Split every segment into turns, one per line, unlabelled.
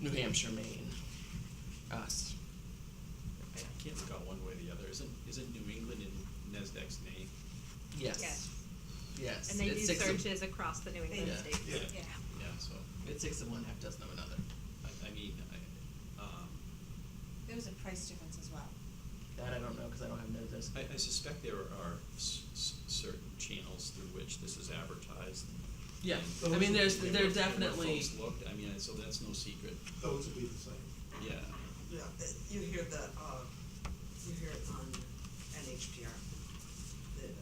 New Hampshire, Maine, us.
I can't look out one way or the other. Isn't, isn't New England in NASDAQ's name?
Yes.
Yes.
Yes.
And they
It's
do
six of-
searches across the New England
Yeah.
states.
Yeah.
Yeah.
Yeah, so,
It's six of one, half dozen of another.
I, I mean, I, um,
There was a price difference as well.
That I don't know because I don't have none of this.
I, I suspect there are s- s- certain channels through which this is advertised.
Yeah,
And
I mean, there's-
where-
there
where
definitely-
folks looked, I mean, so that's no secret,
Those would be the same.
yeah.
Yeah, it- you hear the, uh, you hear it on NHPR. The, uh,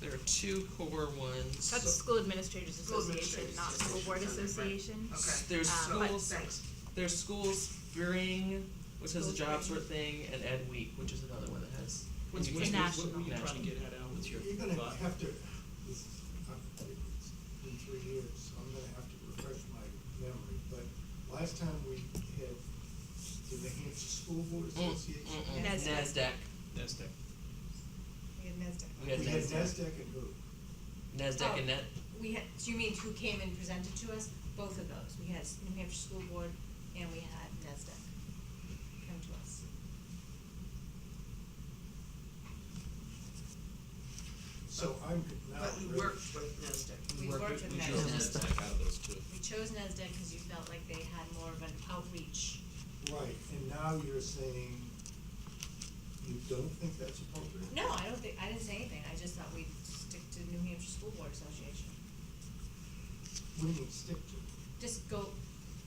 There are two core ones.
That's School Administrators
School
Association,
Administrators
not School Board
Association,
Association.
right. Okay.
There's
Um, but-
schools,
thanks.
there's school spring, which has a
School
job
spring.
sort thing, and Ed Week, which is another one that has.
What's-
Ed Week.
what's- What were you
National.
trying to get at, Al, with your
You're gonna
thought?
have to, this is, uh, it's been three years, so I'm gonna have to refresh my memory, but last time we had the New Hampshire School Board
Mm,
Association.
mm-mm.
NASDAQ.
NASDAQ,
NASDAQ,
We had NASDAQ.
We had
We had
NASDAQ.
NASDAQ and who?
NASDAQ and
Oh,
net,
We had, do you mean who came and presented to us? Both of those. We had New Hampshire School Board and we had NASDAQ come to us.
So I'm now.
but we worked with NASDAQ.
We
worked
worked
with-
with
we chose
NASDAQ.
NASDAQ out of those two.
We chose NASDAQ because you felt like they had more of an outreach.
Right, and now you're saying you don't think that's appropriate?
No, I don't think, I didn't say anything. I just thought we'd stick to New Hampshire School Board Association.
We need to stick to.
Just go,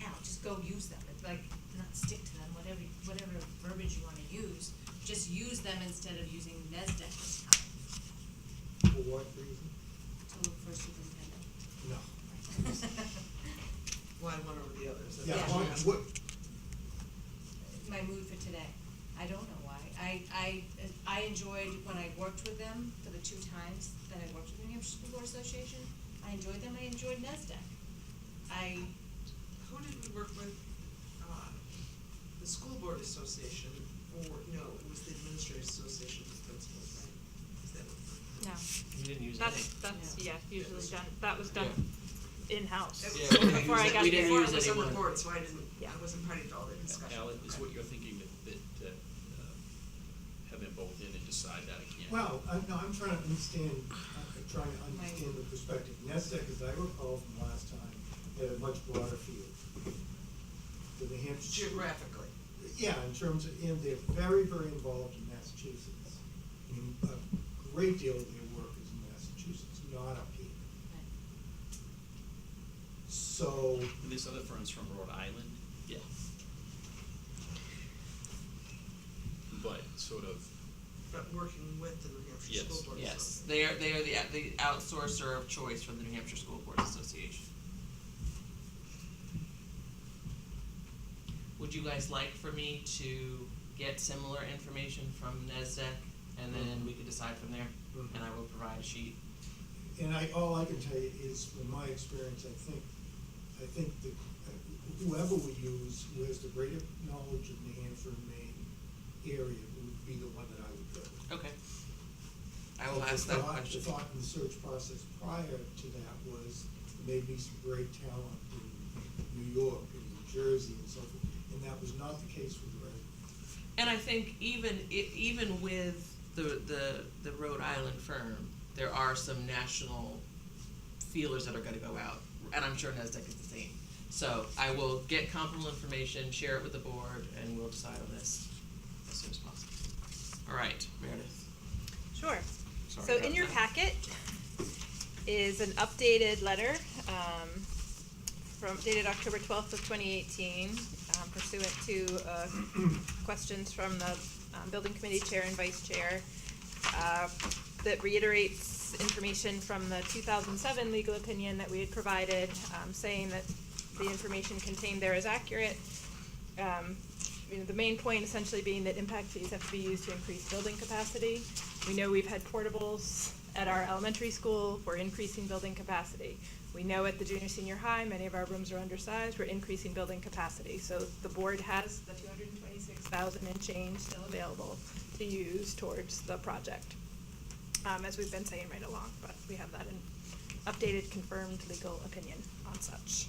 out. just go use them. It's like, not stick to them, whatever, whatever verbiage you wanna use. Just use them instead of using NASDAQ this time
it. For what reason?
to look for a superintendent.
No.
Why one over the others?
Yeah,
Yeah.
why- what,
My mood for today, I don't know why, I, I, I enjoyed when I worked with them for the two times that I worked with the New Hampshire School Board Association, I enjoyed them, I enjoyed NESDAQ. I,
Who did we work with? Uh, The School Board Association, or, no, it was the Administrative Association of Principals, right? Is that what?
No,
you didn't use
that's,
any.
that's, yeah,
Yeah.
usually done, that was done in-house.
That
Yeah,
was-
we didn't
Before
use
I
it-
got
we
there.
didn't
Before I
use
was on the
anyone.
board, so I didn't,
Yeah.
I wasn't party to all the discussion.
Al, is
Okay.
what you're thinking that, that, uh, uh, have them both in and decide that again?
Well, I, no, I'm trying to understand, I'm trying to understand the perspective. NESDEC, as I recall from last time, had a much broader field. The New Hampshire.
Geographically.
Yeah, in terms of, and they're very, very involved in Massachusetts. I mean, a great deal of their work is in Massachusetts, not up here. So,
And this other firm's from Rhode Island? Yeah. But sort of,
But working with the New Hampshire
Yes,
School Board Association.
Yes, they are, they are the, the outsourcer of choice for the New Hampshire School Board Association. Would you guys like for me to get similar information from E NESDEC and then we could decide from there?
Mhm.
And I will provide a sheet.
and I, all I can tell you is, from my experience, I think, I think that whoever we use, who has the greater knowledge of New Hampshire and Maine area, would be the one that I would go with.
Okay. I will ask
The
that
thought-
question.
The thought in the search process prior to that was maybe some great talent in New York and New Jersey and so forth, and that was not the case with the resume.
And I think even i- even with the the the Rhode Island firm, there are some national feelers that are going to go out, and I'm sure Nasdaq is the same. So I will get comparable information, share it with the board, and we'll decide on this as soon as possible. All right, Meredith.
Sure.
Sorry
So
about
in your
that.
packet is an updated letter, um, from, dated October twelfth of twenty eighteen, um, pursuant to, uh, questions from the, um, building committee chair and vice chair, uh, that reiterates information from the two thousand seven legal opinion that we had provided, um, saying that the information contained there is accurate, um, you know, the main point essentially being that impact fees have to be used to increase building capacity. We know we've had portables at our elementary school, we're increasing building capacity. We know at the junior, senior high, many of our rooms are undersized, we're increasing building capacity. So the board has the two hundred and twenty-six thousand and change still available to use towards the project. Um, as we've been saying right along, but we have that in updated confirmed legal opinion on such.